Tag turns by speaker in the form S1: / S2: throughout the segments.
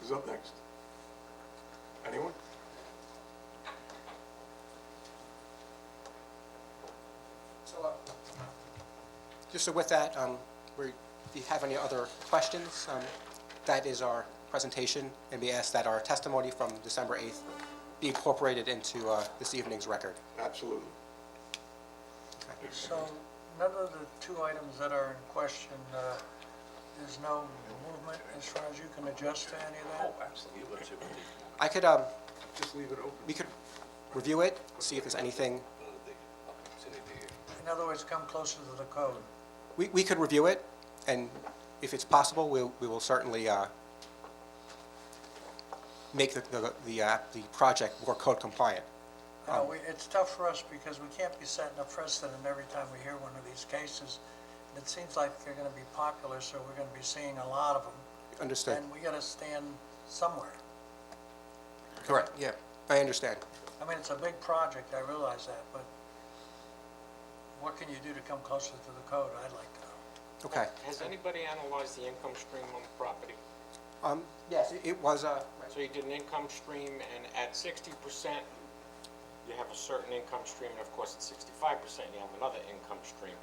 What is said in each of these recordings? S1: Who's up next? Anyone?
S2: So, uh, just so with that, um, we, if you have any other questions, um, that is our presentation, and we ask that our testimony from December 8th be incorporated into uh, this evening's record.
S1: Absolutely.
S3: So remember the two items that are in question, uh, there's no movement as far as you can adjust to any of that?
S4: absolutely.
S2: I could, um,
S1: Just leave it open.
S2: we could review it, see if there's anything,
S3: In other words, come closer to the code.
S2: we, we could review it, and if it's possible, we'll, we will certainly uh, make the, the, the uh, the project more code compliant.
S3: Uh, we- It's tough for us because we can't be setting a precedent every time we hear one of these cases. It seems like they're going to be popular, so we're going to be seeing a lot of them.
S2: Understood?
S3: And we got to stand somewhere.
S2: Correct, yeah, I understand.
S3: I mean, it's a big project, I realize that, but what can you do to come closer to the code? I'd like to know.
S2: Okay.
S5: Has anybody analyzed the income stream on the property?
S2: Um, yes, it- it was, uh,
S5: So you did an income stream, and at sixty percent, you have a certain income stream, and of course, at sixty-five percent, you have another income stream.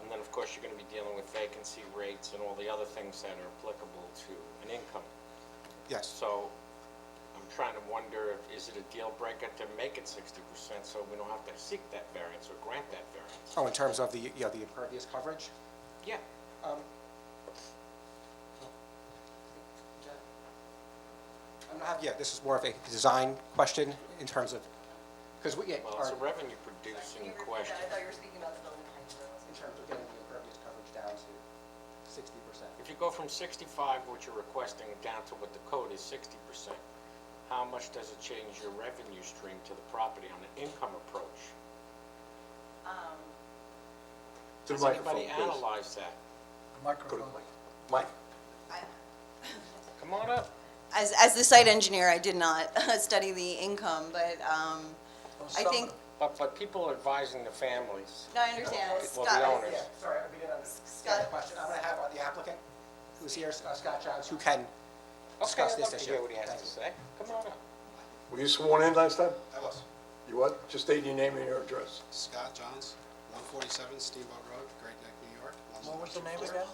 S5: And then, of course, you're gonna be dealing with vacancy rates and all the other things that are applicable to an income.
S2: yes.
S5: So I'm trying to wonder, if is it a deal breaker to make it sixty percent, so we don't have to seek that variance or grant that variance?
S2: Oh, in terms of the, you know, the impervious coverage?
S5: Yeah,
S2: I'm not, yeah, this is more of a design question in terms of, because we, yeah,
S5: well,
S2: our,
S5: it's a
S2: in
S5: revenue-producing question.
S6: I thought you were speaking about the building height.
S2: terms of getting the impervious coverage down to sixty percent.
S5: If you go from 65, which you're requesting, down to what the code is 60%, how much does it change your revenue stream to the property on an income approach?
S4: To the
S5: Has
S4: microphone,
S5: anybody
S4: please.
S5: analyzed that?
S3: Microphone.
S4: Mike,
S5: Come on up.
S6: As, as the site engineer, I did not study the income, but, um,
S3: Well,
S6: I
S3: some-
S6: think,
S5: But, but people are advising the families,
S6: no, I understand.
S5: well, the
S6: Scott,
S5: owners.
S2: Yeah, sorry, we didn't understand the question. I'm gonna have uh, the applicant, who's here, uh, Scott Johns, who can
S5: Okay,
S2: discuss
S5: I'd
S2: this
S5: love to
S2: issue.
S5: hear what he has
S2: Thank
S5: to
S2: you.
S5: say. Come on up.
S1: Were you sworn in last time?
S7: I was.
S1: You what? Just state your name and your address.
S7: Scott Johns, 147 Steamboat Road, Great Neck, New York.
S3: What was the name again?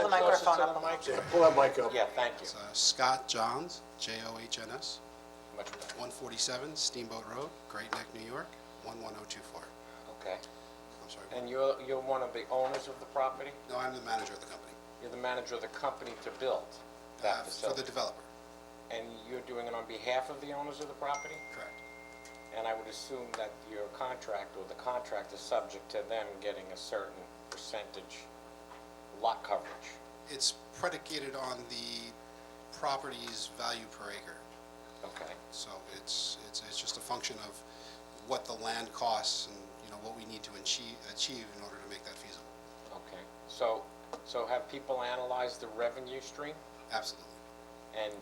S5: the microphone up.
S1: Yeah, pull that mic up.
S5: Yeah, thank you.
S7: It's, uh, Scott Johns, J-O-H-N-S,
S5: Much better.
S7: 147 Steamboat Road, Great Neck, New York, 11024.
S5: Okay.
S7: I'm sorry.
S5: And you're, you're one of the owners of the property?
S7: No, I'm the manager of the company.
S5: You're the manager of the company to build
S7: Uh,
S5: that
S7: For the
S5: facility?
S7: developer,
S5: And you're doing it on behalf of the owners of the property?
S7: correct.
S5: And I would assume that your contract or the contract is subject to them getting a certain percentage lot coverage.
S7: It's predicated on the property's value per acre.
S5: Okay,
S7: So it's, it's, it's just a function of what the land costs and, you know, what we need to achieve, achieve in order to make that feasible.
S5: okay. So, so have people analyzed the revenue stream
S7: Absolutely.
S5: and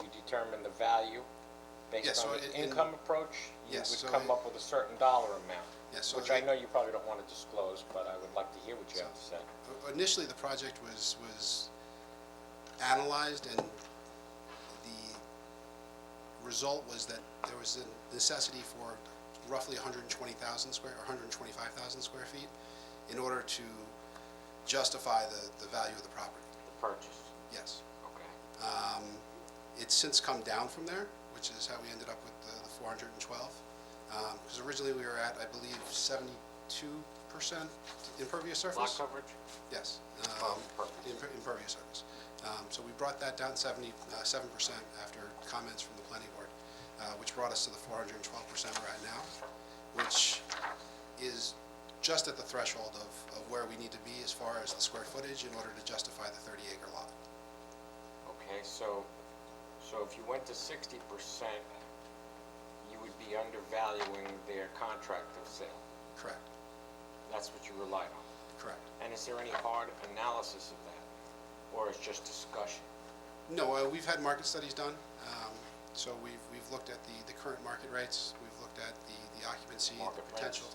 S5: you determine the value
S7: Yeah,
S5: based
S7: so
S5: on
S7: it-
S5: the
S7: in-
S5: income approach? You
S7: Yes,
S5: would
S7: so
S5: come
S7: it-
S5: up with a certain dollar amount?
S7: Yeah, so
S5: Which I
S7: the-
S5: know you probably don't want to disclose, but I would like to hear what you have to say.
S7: Initially, the project was, was analyzed, and the result was that there was a necessity for roughly 120,000 square, or 125,000 square feet in order to justify the, the value of the property,
S5: The purchase,
S7: yes.
S5: okay.
S7: It's since come down from there, which is how we ended up with the- the 412. Because Um, originally, we were at, I believe, 72% impervious surface?
S5: Lot coverage?
S7: Yes.
S5: Oh,
S7: um,
S5: perfect.
S7: imper- Impervious surface. Um, So we brought that down 77 percent after comments from the planning board, uh, which brought us to the 412 percent we're at now, which is just at the threshold of of where we need to be as far as the square footage in order to justify the 30-acre lot.
S5: Okay, so, so if you went to sixty percent, you would be undervaluing their contract of sale.
S7: Correct,
S5: That's what you relied on.
S7: correct.
S5: And is there any hard analysis of that? Or it's just discussion?
S7: No, uh, we've had market studies done, um, so we've we've looked at the the current market rates, we've looked at the the occupancy,
S5: Market
S7: the potential
S5: rates.